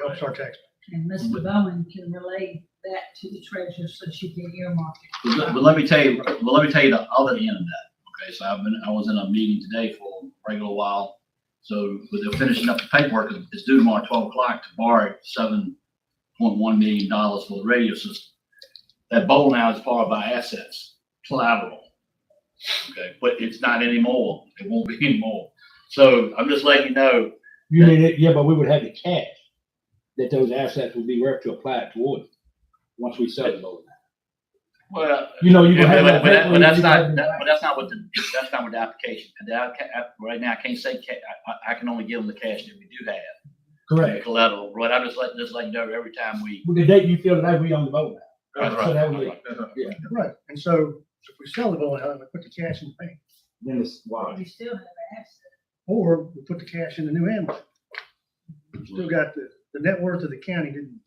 helps our tax. And Mr. Bowen can relay that to the treasurer so she can earmark it. But, let- but let me tell you, but let me tell you the other end of that. Okay, so I've been, I was in a meeting today for a regular while. So, but they're finishing up the paperwork. It's due tomorrow, twelve o'clock, to borrow seven point one million dollars for the radio system. That bowl now is part of our assets, collateral. Okay, but it's not anymore. It won't be anymore. So I'm just letting you know, You mean, it- yeah, but we would have the cash that those assets would be worth to apply it toward, once we sell it. well, You know, you would Yeah, have. But but that- but that's not, that- that- but that's not what the, that's not what the application, and the applica- app- right now, I can't say, ca- I, I- I can only give them the cash that we do have. the Correct. Collateral, right, I'm just letting, just letting you know every time we. With the date you feel that we own the boat now. Right, So right, that would, right. Right, and so if we sell the bowling alley, we put the cash in the bank, then it's why. You still have an asset. or we put the cash in the new ambulance. We've Still got the, the net worth of the county didn't,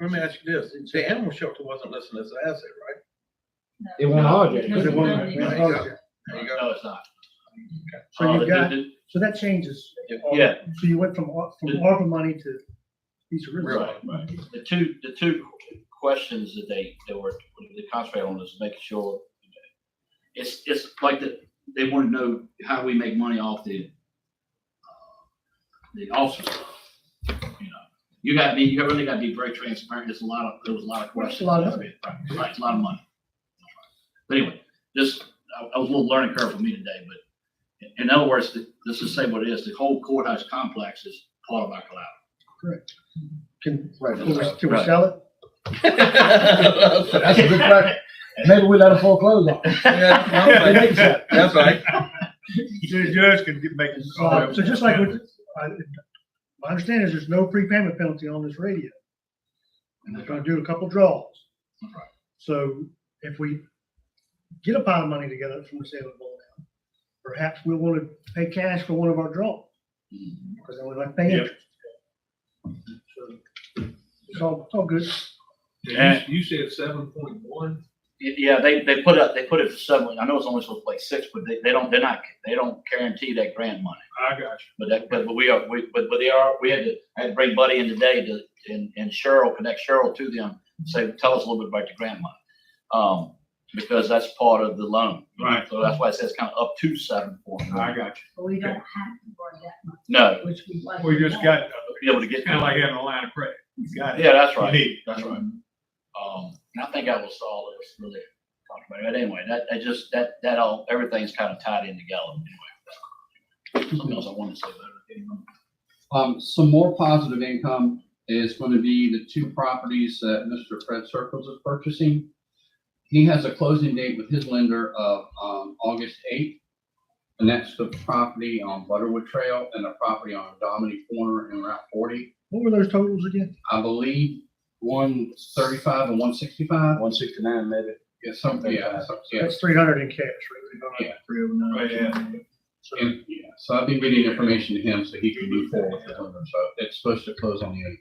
Let me ask you this, the animal shelter wasn't listed as an asset, right? It won't hard yet. because it wasn't. Yeah. There you go. No, it's not. So Uh, you've the- got- the- So that changes. all- Yeah, So you went from, au- from The- ARPA money to piece of real right, estate. right. The two, the two questions that they, that were, they concentrated on is making sure, it's, it's like the, they want to know how we make money off the, uh, the officer. You know, you got, to be- you really got to be very transparent. There's a lot of, there was a lot of questions. a lot of Right, right, it's a lot of money. But anyway, this, I, I was a little learning curve for me today, but in- in other words, the- let's just say what it is, the whole courthouse complex is part of our collateral. Can, right, can we, Right. can we sell it? That's a good question. Maybe we let them foreclose on. it. They Yeah, make sense. That's right. The judge can get, make. Uh, So just like, with- I- my understanding is there's no prepayment penalty on this radio. And we're gonna do a couple draws. Right. So if we get a pile of money together from the sale of Bull Down, perhaps we wanna pay cash for one of our draws, because then we like pay Mm-hmm. Yep. interest. So It's all, it's all good. Yeah. You said seven point one? Y- Yeah, they, they put up, they put it for seven, I know it's only supposed to play six, but they, they don't, they're not, they don't guarantee that grant money. I got But that, but, but we are, we, but, but they are, we had to, I had to bring Buddy in today to, and, and Cheryl, connect Cheryl to them, say, tell us a little bit about the grant money. Um, because that's part of the loan. Right. So that's why it says kind of up to seven point you. I one. got But we don't have to borrow that much, No, which we like. you. We just got, be able to get, it's kind of like having a line of credit. You got it. yeah, that's You right. need it. That's right. Um, and I think I was all that was really talked about. But anyway, that, that just, that, that all, everything's kind of tied in together anyway. Something else I wanted to say, but I can't remember. Um, some more positive income is going to be the two properties that Mr. Fred Circles is purchasing. He has a closing date with his lender of, um, August eighth. And that's the property on Butterwood Trail and the property on Dominic Corner and Route forty. What were those totals again? I believe one thirty-five and one sixty-five. One sixty-nine, maybe. Yeah, something, yeah, something, yeah. That's three hundred in cash, right? Yeah. Three oh nine. Right, yeah. So- And, yeah, so I've been getting information to him so he can move forward with it. So it's supposed to close on the eighth.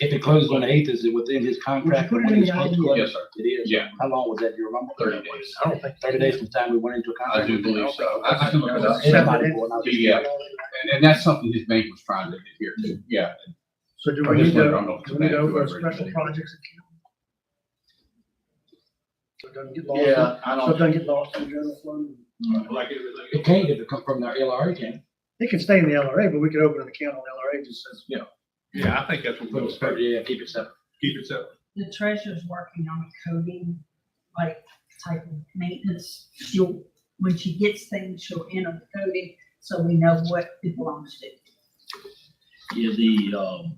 If it closes on the eighth, is it within his contract? Would you put it in the idea? Yes, sir. It is. Yeah. How long was that? Do you remember? 30 days. I don't think, thirty days from the time we went into a I contract. do believe so. I I can look it up. Somebody bought out- Yeah, and, and that's something his bank was trying to get here too, yeah. So do I we just need to, wonder, I don't know if do we need to that- open a whoever it special is. projects account? So it doesn't get lost, in- Yeah, so I it don't, doesn't get lost in general fund. Like everything. It can't if it come from their LRA, can it? It can stay in the LRA, but we could open an account on LRA, just says, Yeah, I think that's what But we'll it's expect. probably- Yeah, keep it separate. Keep it separate. The treasurer's working on a coding, like type of maintenance. She'll, when she gets things, she'll enter the coding so we know what it belongs to. yeah, the, um,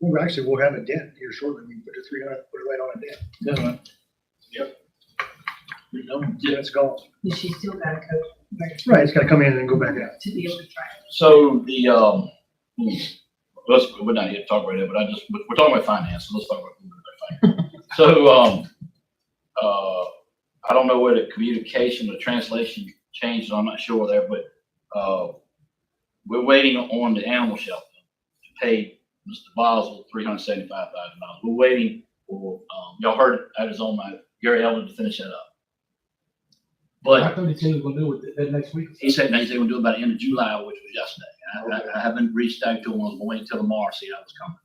well, actually, we'll have a dent here shortly, we put a three hundred, put it right on a dent, you know, yeah, it's gone. But she's still got a code Right, it's gotta come in and go back out. to be able to track. So the, um, hmm, let's, we're not here to talk about it, but I just, we're talking about finance, so let's talk about, about finance. So, um, uh, I don't know where the communication, the translation changed, I'm not sure there, but, uh, we're waiting on the animal shelter to pay Mr. Boswell three hundred seventy-five thousand dollars. We're waiting for, um, y'all heard, it, I was on my, Gary Elder to finish that up. But I thought he said he was gonna do it that next week. he said, they said we'll do it by the end of July, which was yesterday. And I, I- I haven't reached out to him, I was waiting till tomorrow, see how it's coming.